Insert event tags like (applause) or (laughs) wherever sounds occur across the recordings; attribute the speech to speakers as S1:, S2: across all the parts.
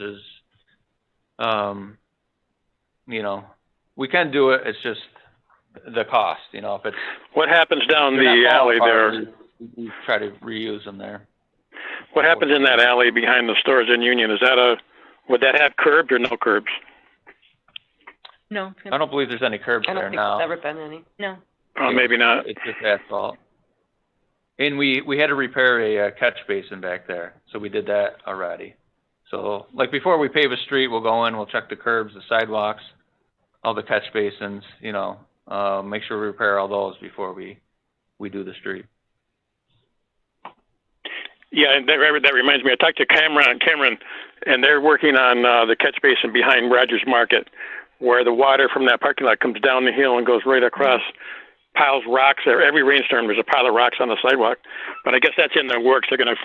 S1: is, um, you know, we can do it, it's just the cost, you know, if it's.
S2: What happens down
S1: they're
S2: the
S1: not
S2: alley there?
S1: qualified, we- We try to reuse them there.
S2: What happens in that alley behind the stores in Union? Is that a, would that have curbs or no curbs?
S3: No,
S1: I don't believe there's any curbs
S4: I don't
S1: there
S4: think there's
S1: now,
S4: ever been any.
S3: no.
S2: Oh, maybe not.
S1: it's just asphalt. And we, we had to repair a uh, catch basin back there, so we did that already. So, like, before we pave a street, we'll go in, we'll check the curbs, the sidewalks, all the catch basins, you know, uh, make sure we repair all those before we, we do the street.
S2: Yeah, and that, that reminds me, I talked to Cameron, Cameron, and they're working on, uh, the catch basin behind Rogers Market, where the water from that parking lot comes down the hill and goes right across piles of rocks there. Every rainstorm, there's a pile of rocks on the sidewalk. But I guess that's in their works. They're gonna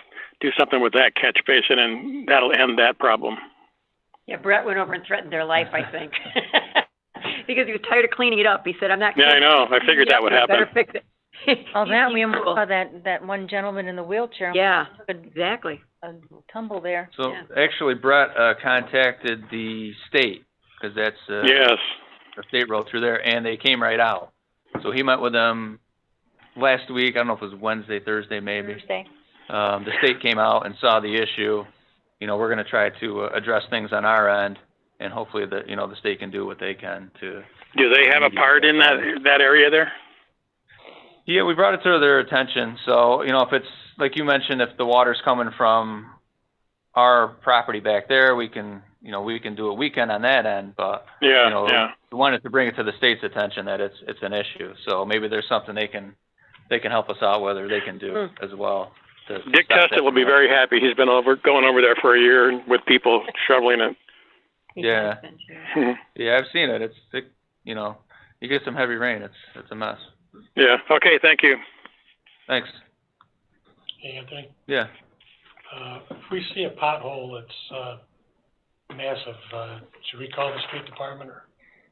S2: do something with that catch basin and that'll end that problem.
S4: Yeah, Brett went over and threatened their life, I think. (laughs) Because he was tired of cleaning it up. He said, I'm not
S2: Yeah, I
S4: cleaning it
S2: know. I figured that
S4: up.
S2: would
S4: (laughs) You
S2: happen.
S4: Better fix it.
S3: (laughs) Oh, that, we almost
S4: Cool.
S3: saw that, that one gentleman in the wheelchair.
S4: Yeah,
S3: Could,
S4: exactly.
S3: uh, tumble there.
S1: So
S4: Yeah.
S1: actually Brett, uh, contacted the state, cause that's, uh,
S2: Yes.
S1: the state road through there and they came right out. So he met with them last week, I don't know if it was Wednesday, Thursday maybe.
S3: Thursday.
S1: Um, the state came out and saw the issue. You know, we're gonna try to uh, address things on our end and hopefully the, you know, the state can do what they can to.
S2: Do they have a part in that, that area there?
S1: Yeah, we brought it to their attention, so, you know, if it's, like you mentioned, if the water's coming from our property back there, we can, you know, we can do a weekend on that end, but
S2: Yeah,
S1: You know,
S2: yeah.
S1: we wanted to bring it to the state's attention that it's, it's an issue, so maybe there's something they can, they can help us out with, or they can do as well. to
S2: Dick
S1: stop that
S2: Testa will be
S1: from
S2: very happy. He's been over, going over there for a year with people shoveling it.
S1: Yeah.
S2: Hmm.
S1: happening. Yeah, I've seen it, it's, it, you know, you get some heavy rain, it's, it's a mess.
S2: Yeah, okay, thank you.
S1: Thanks,
S5: Hey, Anthony,
S1: yeah,
S5: uh, if we see a pothole that's, uh, massive, uh, should we call the street department or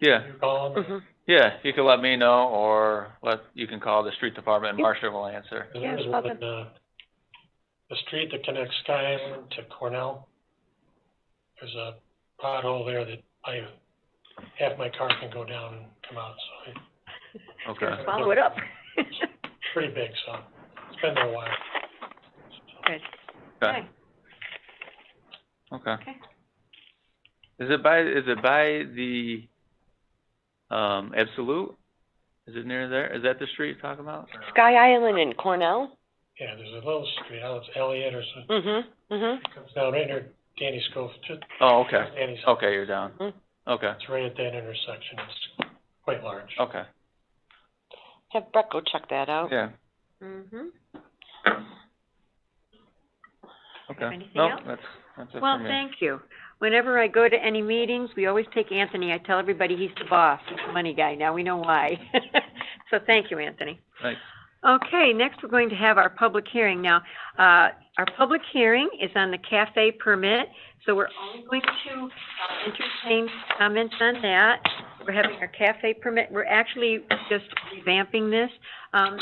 S1: yeah,
S5: you call them?
S4: Mhm.
S1: yeah, you can let me know, or let, you can call the street department, and Marcia will answer.
S5: 'Cause There
S4: Yeah,
S5: was
S4: call
S5: one, uh, the street that connects Sky Island to Cornell. There's a pothole there that I, half my car can go down and come out, so it's
S1: Okay,
S4: Follow it up. (laughs)
S5: pretty big, so it's been there a while.
S1: okay, okay.
S4: Okay.
S1: Is it by, is it by the, um, Absolute? Is it near there? Is that the street you're talking about?
S4: Sky Island in Cornell?
S5: Yeah, there's a little street, out it's Elliott or something,
S4: Mm-hmm, mm-hmm.
S5: comes down right near Danny Schofield, just
S1: Oh, okay,
S5: Danny's,
S1: okay, you're down.
S4: Mhm.
S1: Okay,
S5: it's right at that intersection, it's quite large.
S1: okay,
S4: Have Brett go check that out.
S1: yeah,
S4: Mm-hmm.
S1: okay.
S4: anything
S1: No,
S4: else?
S1: that's, that's it for
S4: Well,
S1: me.
S4: thank you. Whenever I go to any meetings, we always take Anthony. I tell everybody he's the boss, he's the money guy. Now we know why. (laughs) So thank you, Anthony.
S1: Thanks.
S4: Okay, next we're going to have our public hearing. Now, uh, our public hearing is on the cafe permit, so we're only going to uh, entertain comments on that. We're having our cafe permit, we're actually just revamping this. Um,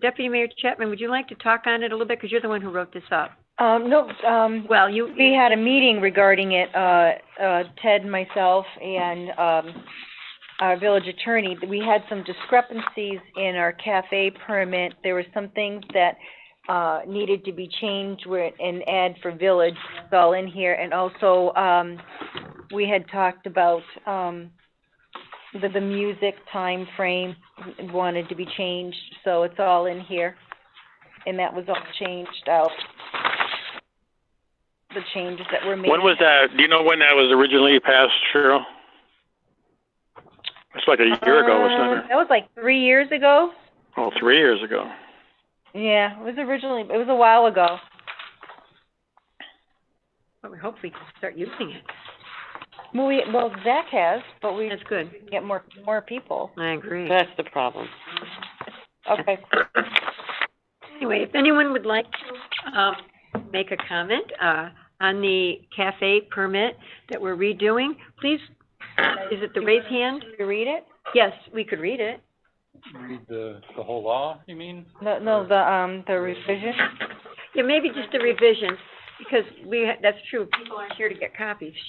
S4: Deputy Mayor Chapman, would you like to talk on it a little bit? Because you're the one who wrote this up.
S3: Um, no, um,
S4: Well, you,
S3: we had a meeting regarding it, uh, uh, Ted, myself, and, um, our village attorney. We had some discrepancies in our cafe permit. There were some things that, uh, needed to be changed where, and add for village, it's all in here. And also, um, we had talked about, um, the, the music time frame wanted to be changed, so it's all in here. And that was all changed out, the changes that were made.
S2: When was that, do you know when that was originally passed, Cheryl? It's like a year ago, wasn't
S3: Um,
S2: it?
S3: That was like three years ago.
S2: Oh, three years ago.
S3: Yeah, it was originally, it was a while ago.
S4: Well, we hopefully can start using it.
S3: Well, we, well, Zach has, but we
S4: That's good.
S3: get more, more people.
S4: I agree.
S6: That's the problem.
S3: Okay.
S4: Anyway, if anyone would like to, um, make a comment, uh, on the cafe permit that we're redoing, please, is it the raise hand?
S3: Did you read it?
S4: Yes, we could read it.
S3: No, no, the, um, the revision?
S4: Yeah, maybe just the revisions, because we, that's true, people aren't here to get copies.